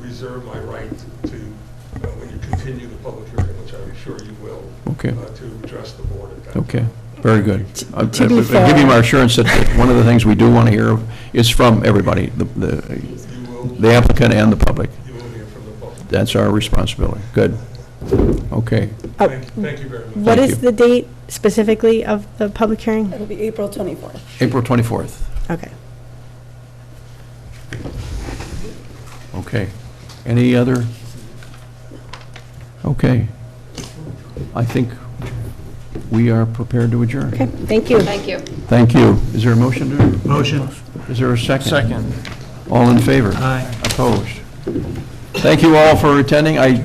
reserve my right to, uh, when you continue the public hearing, which I'm sure you will, Okay. uh, to address the board at that time. Okay, very good. I- I- To be I give you my fair- assurance that one of the things we do want to hear is from everybody, the- the You will, the applicant and the public. you will hear from the public. That's our responsibility. Good. Okay, Oh, Thank thank you very much. What Thank is you. the date specifically of the public hearing? It'll be April 24th. April 24th. Okay. Okay. Any other? Okay. I think we are prepared to adjourn. Okay, thank you. Thank you. Thank you. Is there a motion to, Motion. is there a second? Second. All in favor? Aye. Opposed? Thank you all for attending. I